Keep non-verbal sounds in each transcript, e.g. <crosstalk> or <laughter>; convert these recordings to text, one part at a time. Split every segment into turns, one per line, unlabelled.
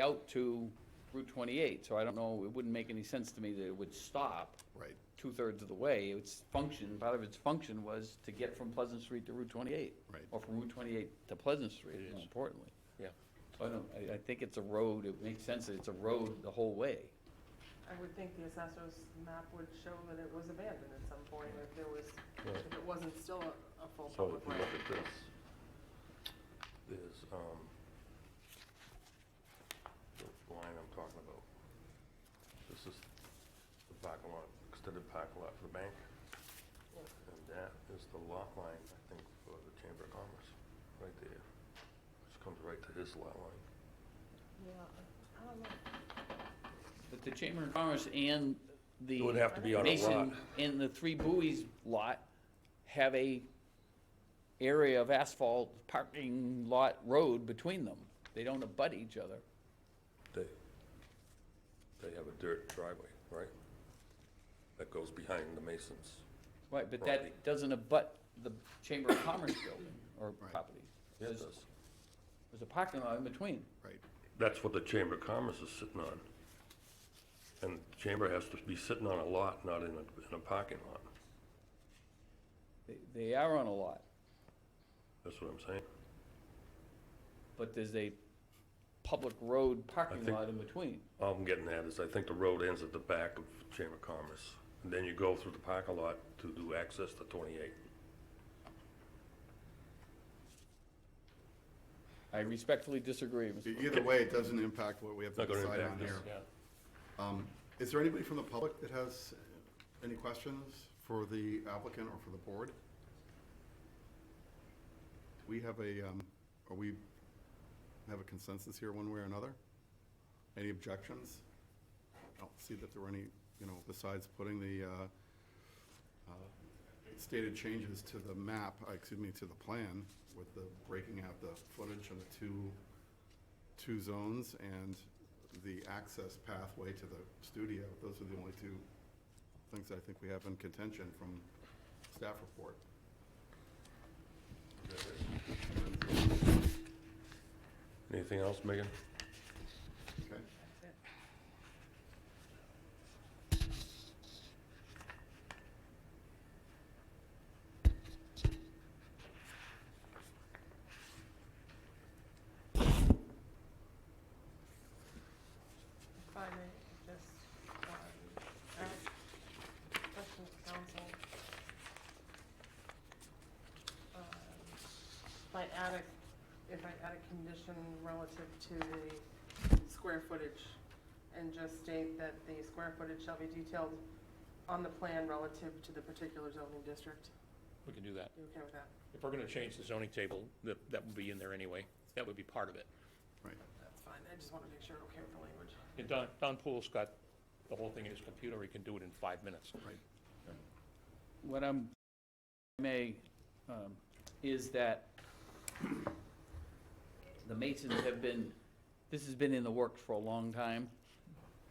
out to Route 28, so I don't know, it wouldn't make any sense to me that it would stop
Right.
two-thirds of the way. Its function, part of its function was to get from Pleasant Street to Route 28.
Right.
Or from Route 28 to Pleasant Street, more importantly.
Yeah.
So I don't, I, I think it's a road, it makes sense that it's a road the whole way.
I would think the assessor's map would show that it was abandoned at some point, if there was, if it wasn't still a a full
So if
public
you
way.
look at this, there's, um, the line I'm talking about. This is the parking lot, extended parking lot for the bank. And that is the lot line, I think, for the Chamber of Commerce, right there, which comes right to his lot line.
Yeah, I don't know.
But the Chamber of Commerce and the.
It would have to be on a
Mason
lot.
And the Three Buoys lot have a area of asphalt parking lot road between them. They don't abut each other.
They, they have a dirt driveway, right? That goes behind the Masons.
Right, but
Property.
that doesn't abut the Chamber of Commerce
<coughs>
building or property.
It
There's
does.
there's a parking lot in between.
Right.
That's what the Chamber of Commerce is sitting on. And the Chamber has to be sitting on a lot, not in a, in a parking lot.
They- They are on a lot,
That's what I'm saying.
but there's a public road parking
think-
lot in between.
All I'm getting at is I think the road ends at the back of Chamber of Commerce. And then you go through the parking lot to do access to twenty-eight.
I respectfully disagree, Mr.
E- Either way, it doesn't impact what we have to
Not gonna
decide on
impact us.
here. Um, Is there anybody from the public that has any questions for the applicant or for the board? We have a, um, are we, have a consensus here one way or another? Any objections? I don't see that there were any, you know, besides putting the uh, uh, stated changes to the map, uh, excuse me, to the plan with the breaking out the footage and the two two zones and the access pathway to the studio, those are the only two things I think we have in contention from staff report.
Anything else, Megan?
Okay?
If I may, just, uh, ask questions to council. Um, If I add a, if I add a condition relative to the square footage and just state that the square footage shall be detailed on the plan relative to the particular zoning district,
We can do that.
you okay with that?
If we're gonna change the zoning table, that, that would be in there anyway. That would be part of it.
Right.
That's fine, I just want to make sure, okay with the language.
And Don, Don Poole's got the whole thing in his computer. He can do it in five minutes.
what I'm, may, um, is that the Masons have been, this has been in the works for a long time,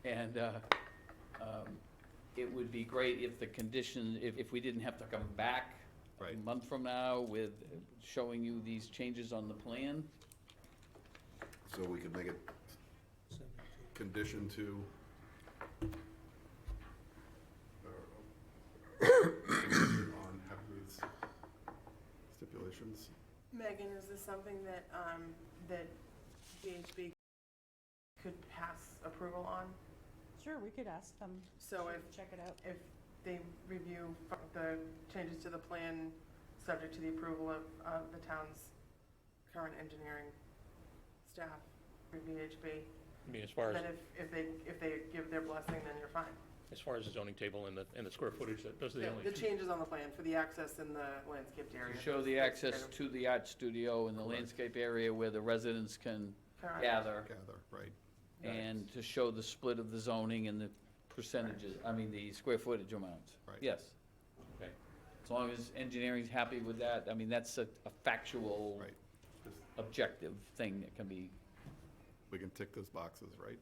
and, uh, um, it would be great if the condition, if, if we didn't have to come back a
Right.
month from now with showing you these changes on the plan.
So we could make it condition to. uh, On Hepburne's stipulations.
Megan, is this something that, um, that VHB could pass approval on?
Sure, we could ask them.
So
to
if-
Check it out.
If they review the changes to the plan, subject to the approval of, of the town's current engineering staff, through VHB,
I mean, as far as,
then if, if they, if they give their blessing, then you're fine.
as far as the zoning table and the, and the square footage, that- those are the only
The
two-
changes on the plan for the access and the landscaped area.
To show the access to the art studio and the landscape area where the residents can
Correct.
gather.
Gather, right.
and to show the split of the zoning and the percentages, I mean, the square footage amounts.
Right.
Yes,
Okay.
as long as engineering's happy with that, I mean, that's a a factual,
Right.
objective thing that can be,
We can tick those boxes, right?